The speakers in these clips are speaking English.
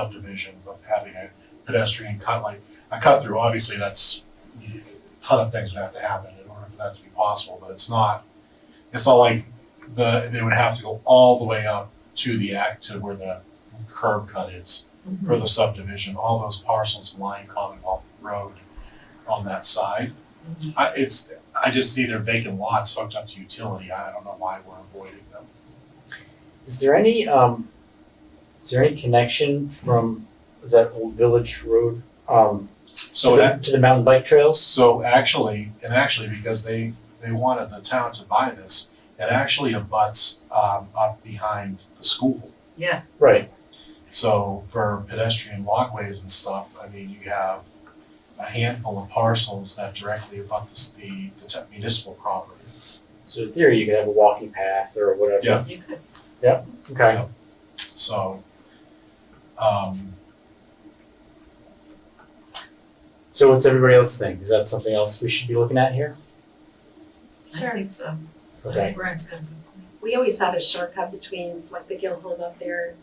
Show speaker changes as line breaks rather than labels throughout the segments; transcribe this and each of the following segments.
subdivision, but having a pedestrian cut like a cut through, obviously that's a ton of things would have to happen in order for that to be possible, but it's not. It's not like the, they would have to go all the way up to the act to where the curb cut is for the subdivision, all those parcels line Commonwealth Road on that side. I, it's, I just see their vacant lots hooked up to utility, I don't know why we're avoiding them.
Is there any um is there any connection from that old village road um
So
to,
Oh, that,
the, to the mountain bike trails?
So actually, and actually, because they, they wanted the town to buy this, it actually abuts, um, up behind the school.
Yeah,
Right.
So for pedestrian walkways and stuff, I mean, you have a handful of parcels that directly abut this, the, the te- municipal property.
So in theory you could have a walking path or whatever.
Yeah.
you could.
Okay.
Yeah. So, um,
So what's everybody else think? Is that something else we should be looking at here?
I think so. I
Okay.
think Brian's got a good point.
We always had a shortcut between like the Gill home up there,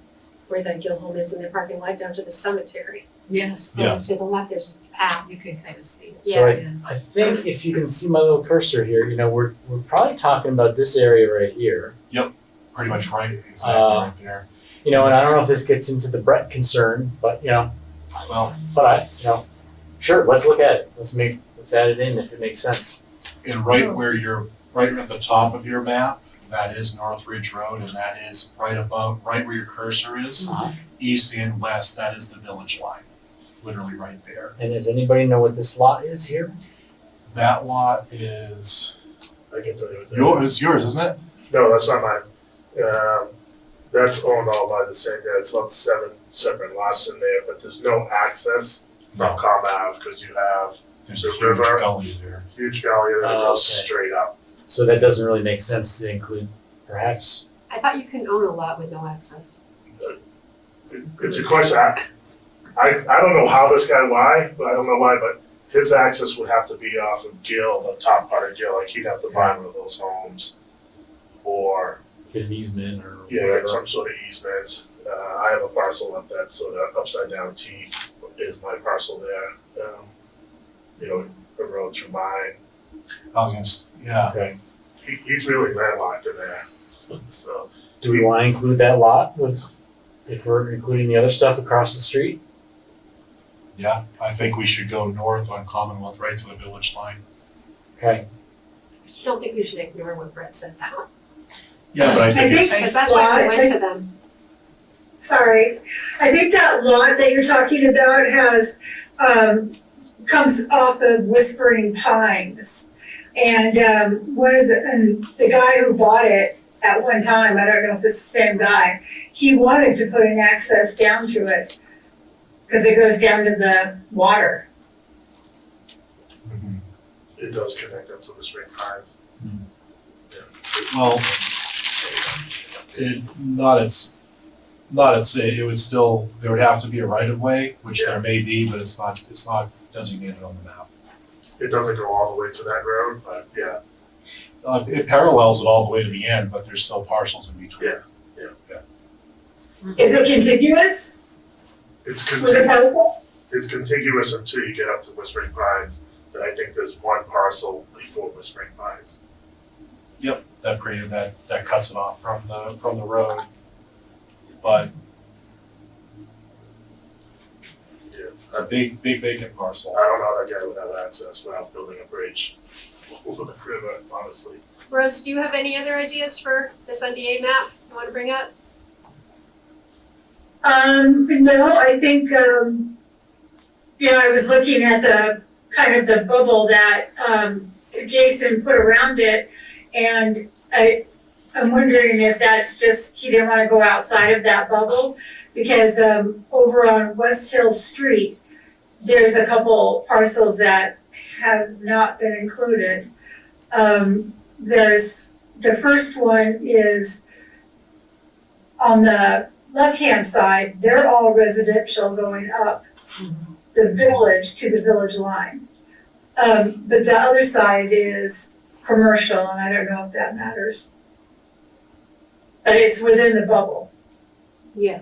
where the Gill home is in the parking lot down to the cemetery.
Yes,
Yeah.
Um, To the left, there's a path.
you can kind of see it.
So I
Yeah.
I think if you can see my little cursor here, you know, we're we're probably talking about this area right here.
pretty much right, exactly
Uh,
right there.
You know, and I don't know if this gets into the Brett concern, but you know,
Well,
but I you know, sure, let's look at it. Let's make let's add it in if it makes sense.
and right where you're, right at the top of your map, that is North Ridge Road, and that is right above, right where your cursor is. east and west, that is the village line, literally right there.
And does anybody know what this lot is here?
That lot is
I can tell you what that
yours, it's yours, isn't it?
No, that's not mine. Um, that's owned all by the same guy. It's about seven separate lots in there, but there's no access from Com Ave because you have
There's a
The
huge
river.
gully there.
huge valley that
Oh,
goes
okay.
straight up.
So that doesn't really make sense to include, perhaps.
I thought you couldn't own a lot with no access.
It- It's a question. I, I, I don't know how this guy why, but I don't know why, but his access would have to be off of Gill, the top part of Gill. Like he'd have to buy one of those homes, or
Get an easement or
yeah,
whatever.
get some sort of easement. Uh, I have a parcel up that sort of upside down T is my parcel there. Um, you know, the road through mine.
I was gonna, s- yeah,
Okay.
He, he's really landlocked in there. So
Do we want to include that lot with, if we're including the other stuff across the street?
yeah, I think we should go north on Commonwealth right to the village line.
Okay.
I just don't think we should ignore what Brett said though.
Yeah, but I
I
think it's,
think-
Because that's why we went to them.
Sorry, I think that lot that you're talking about has, um, comes off of Whispering Pines. And, um, one of the, and the guy who bought it at one time, I don't know if it's the same guy, he wanted to put an access down to it. Cause it goes down to the water.
Mhm.
it does connect up to the spring pines.
well, it, not it's, not it's, it it would still, there would have to be a right of way, which there may be, but it's not, it's not designated on the map.
It doesn't go all the way to that road, but yeah,
Uh, it parallels it all the way to the end, but there's still parcels in between.
Yeah. yeah, yeah.
Is it contiguous
It's
with the
contiguous.
parcel?
It's contiguous until you get up to Whispering Pines. Then I think there's one parcel before Whispering Pines.
that created that that cuts it off from the from the road. But
Yeah.
it's a big big vacant parcel.
I don't know how that guy would have access without building a bridge over the river, honestly.
Rose, do you have any other ideas for this NBA map you wanna bring up?
Um, no, I think, um, you know, I was looking at the, kind of the bubble that, um, Jason put around it. And I, I'm wondering if that's just, he didn't wanna go outside of that bubble. Because, um, over on West Hill Street, there's a couple parcels that have not been included. Um, there's, the first one is on the left-hand side, they're all residential going up the village to the village line. Um, but the other side is commercial, and I don't know if that matters. But it's within the bubble.
Yeah.